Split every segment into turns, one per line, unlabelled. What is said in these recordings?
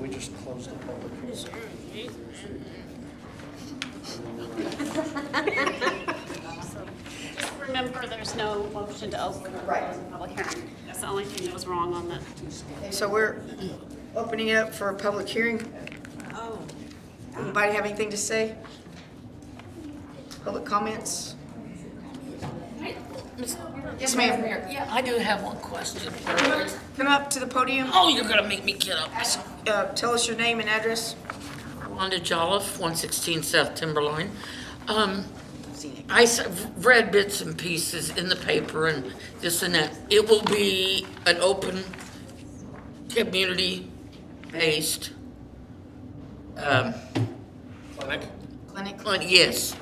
We just closed the public hearing.
Just remember, there's no motion to open or close the public hearing. That's the only thing that was wrong on that.
So we're opening it up for a public hearing. Anybody have anything to say? Public comments? Yes, ma'am.
Yeah, I do have one question.
Come up to the podium.
Oh, you're gonna make me get up.
Ask, uh, Tell us your name and address.
Wanda Jolliffe, 116 South Timberline. Um, I s- read bits and pieces in the paper and this and that. It will be an open, community-based
Clinic?
Clinic
um, clinic, yes.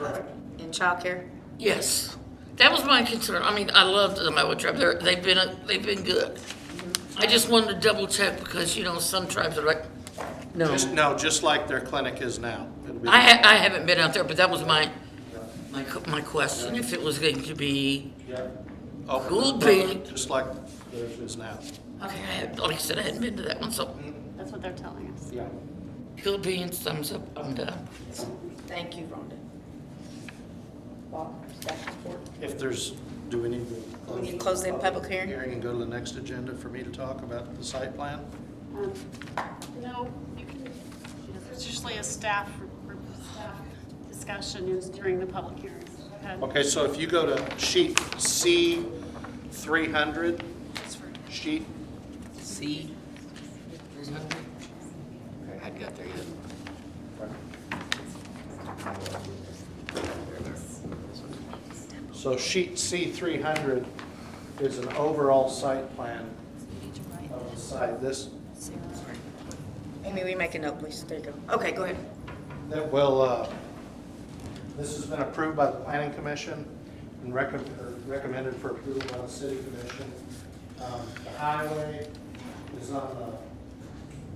and childcare.
Yes, that was my concern. I mean, I loved the Iowa tribe. They're, they've been, they've been good. I just wanted to double check because, you know, some tribes are like, no.
Just, no, just like their clinic is now. It'll be-
I, ha- I haven't been out there, but that was my, my, co- my question, if it was going to be,
open to the
Cool
public,
beans.
Oh, Just like theirs is now.
okay, I had, like I said, I hadn't been to that one, so,
That's what they're telling us.
Yeah.
Bill Beans, thumbs up, I'm done.
Thank you, Rhonda.
If there's, do we need to?
We need to close the public hearing?
Hearing and go to the next agenda for me to talk about the site plan?
Um, No, you can, there's usually a staff, staff discussion is during the public hearings. Okay,
Okay, so if you go to sheet C three hundred,
that's for-
sheet,
See?
I'd go through you.
so sheet C three hundred is an overall site plan of the site. This,
Amy, we make a note, please? There you go. Okay, go ahead.
that will, uh, this has been approved by the planning commission and recom- or recommended for approval by the city commission. Um, The highway is on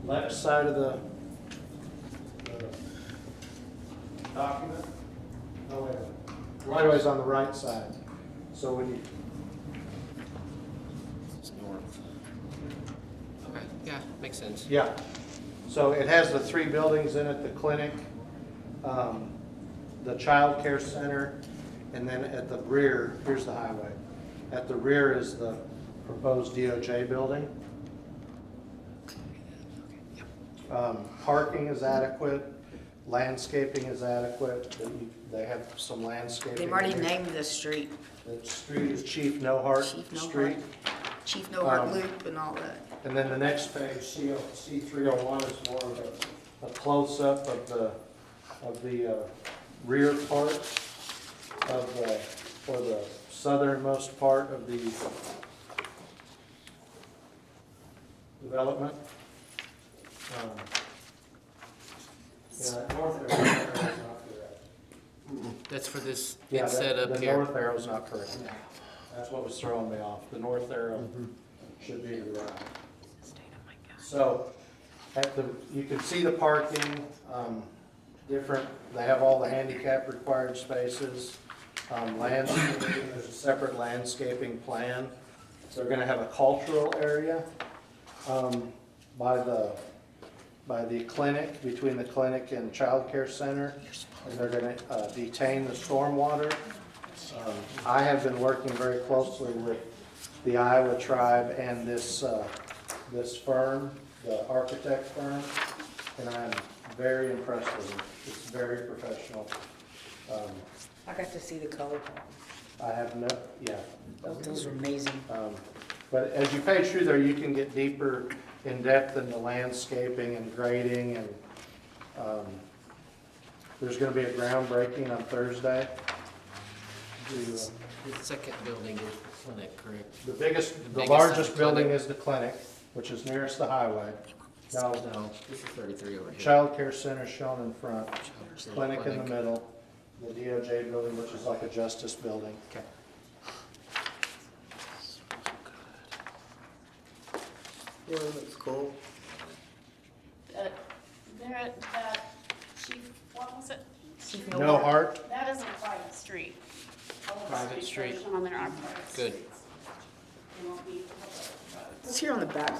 the left side of the the document. No, wait, wait. right away's on the right side. So when you,
Okay, yeah, makes sense.
Yeah, so it has the three buildings in it, the clinic, um, the childcare center, and then at the rear, here's the highway. At the rear is the proposed DOJ building. Um, Parking is adequate, landscaping is adequate, They- they have some landscaping.
They've already
there.
named the street.
The street is Chief Nohart
Chief Nohart.
Street.
Chief No Heart
Um,
Loop and all that.
And then the next page, C, C three oh one is more of a, a close-up of the, of the, uh, rear part of the, or the southernmost part of the development. Um, Yeah, that north arrow is not correct.
That's for this,
Yeah,
it's set
that-
up
The
here.
north arrow's not correct. That's what was throwing me off. The north arrow should be to the right. So, at the, you can see the parking, um, different, they have all the handicap required spaces. Um, landscaping, there's a separate landscaping plan. They're gonna have a cultural area, um, by the, by the clinic, between the clinic and childcare center. And they're gonna, uh, detain the stormwater. Um, I have been working very closely with the Iowa tribe and this, uh, this firm, the architect firm, and I'm very impressed with it. It's very professional. Um,
I got to see the color.
I have no, yeah.
Those are amazing.
Um, But as you page through there, you can get deeper in depth in the landscaping and grading and, um, there's gonna be a groundbreaking on Thursday. The, uh,
The second building is the clinic, correct?
The biggest, the
biggest
largest
clinic.
building is the clinic, which is nearest the highway. Now,
No, this is thirty-three over here.
childcare center shown in front, clinic in the middle, the DOJ building, which is like a justice building.
Okay.
Really looks cool.
uh, There, at, uh, chief, what was it?
Chief
No heart,
That is a private street. All of the
Private
streets that
street.
are On there are private
Good.
streets. They won't be public roads.
It's here on the back.